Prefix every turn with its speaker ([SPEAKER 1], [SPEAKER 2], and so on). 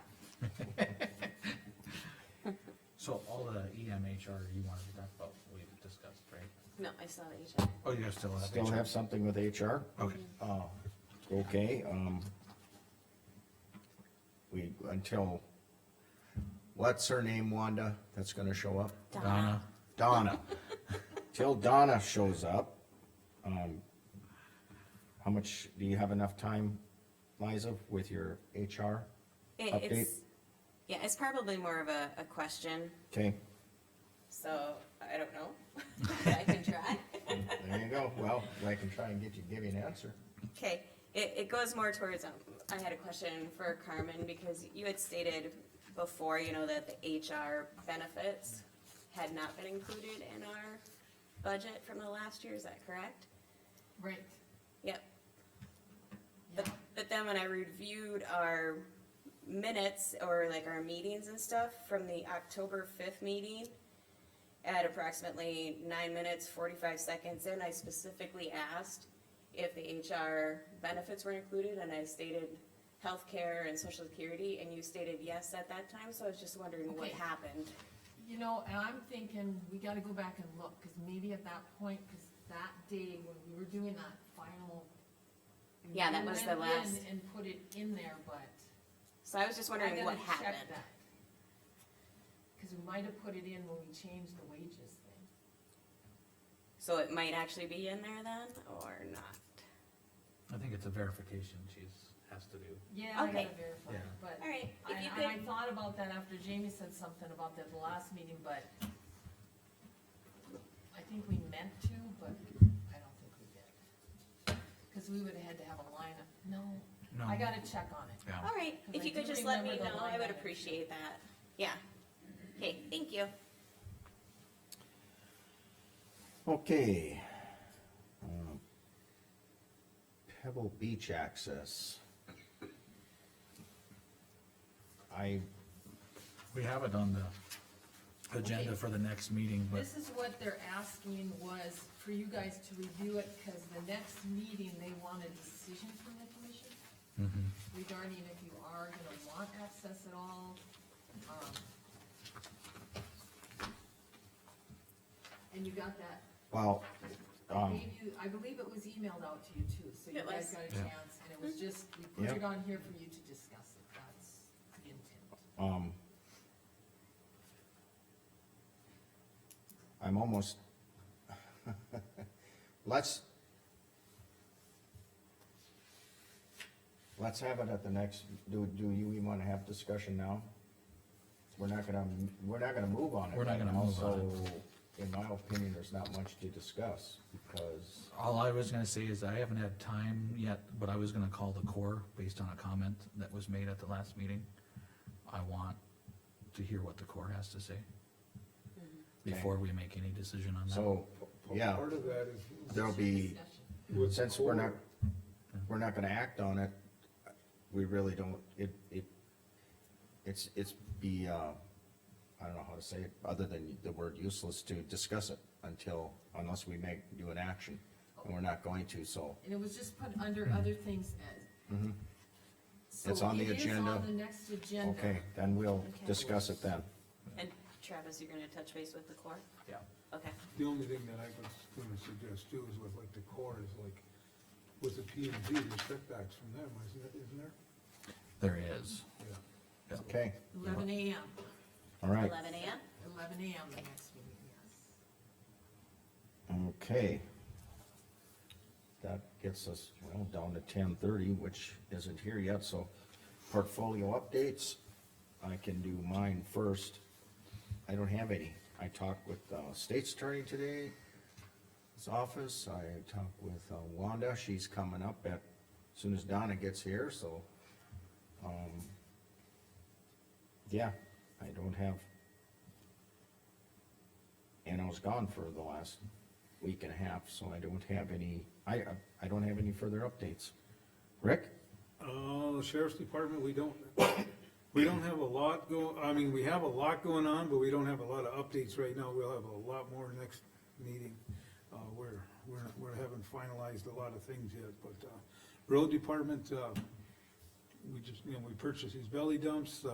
[SPEAKER 1] So all the E EMHR you wanted to talk about, we've discussed, right?
[SPEAKER 2] No, I saw the HR.
[SPEAKER 1] Oh, you guys still have.
[SPEAKER 3] Still
[SPEAKER 1] HR.
[SPEAKER 3] have something with HR?
[SPEAKER 1] Okay,
[SPEAKER 3] Oh, okay, um. We, until, what's her name, Wanda, that's gonna show up?
[SPEAKER 1] Donna,
[SPEAKER 3] Donna. Till Donna shows up, um. How much, do you have enough time, Liza, with your HR?
[SPEAKER 2] It-
[SPEAKER 3] Update.
[SPEAKER 2] It's, yeah, it's probably more of a, a question,
[SPEAKER 3] Okay,
[SPEAKER 2] so I don't know. I can try.
[SPEAKER 3] there you go, well, I can try and get you, give you an answer.
[SPEAKER 2] Okay, it, it goes more towards, um, I had a question for Carmen, because you had stated before, you know, that the HR benefits had not been included in our budget from the last year, is that correct?
[SPEAKER 4] Right,
[SPEAKER 2] Yep. But, but then when I reviewed our minutes or like our meetings and stuff from the October fifth meeting, at approximately nine minutes, forty-five seconds in, I specifically asked if the HR benefits were included and I stated healthcare and social security and you stated yes at that time, so I was just wondering what
[SPEAKER 4] Okay.
[SPEAKER 2] happened.
[SPEAKER 4] you know, and I'm thinking, we gotta go back and look, cause maybe at that point, cause that day when we were doing that final.
[SPEAKER 2] Yeah, that
[SPEAKER 4] we
[SPEAKER 2] was the
[SPEAKER 4] went in
[SPEAKER 2] last-
[SPEAKER 4] And put it in there, but.
[SPEAKER 2] So I was just
[SPEAKER 4] I
[SPEAKER 2] wondering what
[SPEAKER 4] gotta check
[SPEAKER 2] happened.
[SPEAKER 4] that. Cause we might have put it in when we changed the wages thing.
[SPEAKER 2] So it might actually be in there then, or not?
[SPEAKER 1] I think it's a verification she's, has to do.
[SPEAKER 4] Yeah, I
[SPEAKER 2] Okay.
[SPEAKER 4] gotta verify,
[SPEAKER 1] Yeah.
[SPEAKER 4] but.
[SPEAKER 2] Alright,
[SPEAKER 4] I-
[SPEAKER 2] if you
[SPEAKER 4] And I
[SPEAKER 2] could,
[SPEAKER 4] thought about that after Jamie said something about that the last meeting, but I think we meant to, but I don't think we did. Cause we would've had to have a lineup, no,
[SPEAKER 1] No.
[SPEAKER 4] I gotta check on it. Oh.
[SPEAKER 1] Yeah.
[SPEAKER 2] alright,
[SPEAKER 4] Because
[SPEAKER 2] if
[SPEAKER 4] I
[SPEAKER 2] you could
[SPEAKER 4] do
[SPEAKER 2] just let me
[SPEAKER 4] remember the
[SPEAKER 2] know,
[SPEAKER 4] line
[SPEAKER 2] I would
[SPEAKER 4] item.
[SPEAKER 2] appreciate that, yeah. Okay, thank you.
[SPEAKER 3] Okay. Um, Pebble Beach access. I,
[SPEAKER 1] We have it on the agenda
[SPEAKER 4] Okay.
[SPEAKER 1] for the next meeting, but
[SPEAKER 4] This is what they're asking was for you guys to review it, cause the next meeting, they want a decision from the commission
[SPEAKER 3] Mm-hmm.
[SPEAKER 4] regarding if you are gonna want access at all, um. And you got that,
[SPEAKER 3] well,
[SPEAKER 4] I
[SPEAKER 3] um,
[SPEAKER 4] gave you, I believe it was emailed out to you too, so you
[SPEAKER 2] It was.
[SPEAKER 4] guys
[SPEAKER 2] Mm-hmm.
[SPEAKER 4] got a
[SPEAKER 1] Yeah.
[SPEAKER 4] chance, and it was just, we put
[SPEAKER 3] Yep.
[SPEAKER 4] it on here for you to discuss it, that's the intent.
[SPEAKER 3] um. I'm almost. Let's. Let's have it at the next, do, do you even wanna have discussion now? We're not gonna, we're not gonna move on it.
[SPEAKER 1] We're not
[SPEAKER 3] right
[SPEAKER 1] gonna
[SPEAKER 3] now,
[SPEAKER 1] move on
[SPEAKER 3] so, In my opinion, there's not much to discuss, because,
[SPEAKER 1] all I was gonna say is I haven't had time yet, but I was gonna call the core based on a comment that was made at the last meeting. I want to hear what the core has to say
[SPEAKER 4] Mm-hmm.
[SPEAKER 1] before we make any decision on that.
[SPEAKER 3] so, yeah,
[SPEAKER 5] Part of that is.
[SPEAKER 3] there'll be,
[SPEAKER 4] Discussion.
[SPEAKER 5] with
[SPEAKER 3] since we're not,
[SPEAKER 5] core,
[SPEAKER 3] we're not gonna act on it, we really don't, it, it, it's, it's be, uh, I don't know how to say it, other than the word useless to discuss it until, unless we make, do an action, and we're not going to, so.
[SPEAKER 4] And it was just put under other things as. So
[SPEAKER 3] Mm-hmm. It's on the
[SPEAKER 4] It is
[SPEAKER 3] agenda.
[SPEAKER 4] on the next agenda.
[SPEAKER 3] Okay, then we'll
[SPEAKER 2] Okay.
[SPEAKER 3] discuss it then.
[SPEAKER 2] And Travis, you're gonna touch base with the core?
[SPEAKER 1] Yeah.
[SPEAKER 2] Okay,
[SPEAKER 5] The only thing that I was gonna suggest too is with like the core is like, with the P and Z, there's setbacks from them, isn't it, isn't there?
[SPEAKER 1] There is.
[SPEAKER 5] Yeah.
[SPEAKER 3] Okay,
[SPEAKER 4] Eleven AM,
[SPEAKER 3] all right,
[SPEAKER 2] eleven AM?
[SPEAKER 4] eleven AM the next meeting, yes.
[SPEAKER 3] okay. That gets us, well, down to ten thirty, which isn't here yet, so portfolio updates, I can do mine first. I don't have any. I talked with uh, state's attorney today, his office. I talked with uh, Wanda. She's coming up at, as soon as Donna gets here, so. um, Yeah, I don't have. And I was gone for the last week and a half, so I don't have any, I, I don't have any further updates. Rick?
[SPEAKER 5] Uh, the sheriff's department, we don't, we don't have a lot go, I mean, we have a lot going on, but we don't have a lot of updates right now. We'll have a lot more next meeting. Uh, we're, we're, we're haven't finalized a lot of things yet, but, uh, road department, uh, we just, you know, we purchased these belly dumps, uh,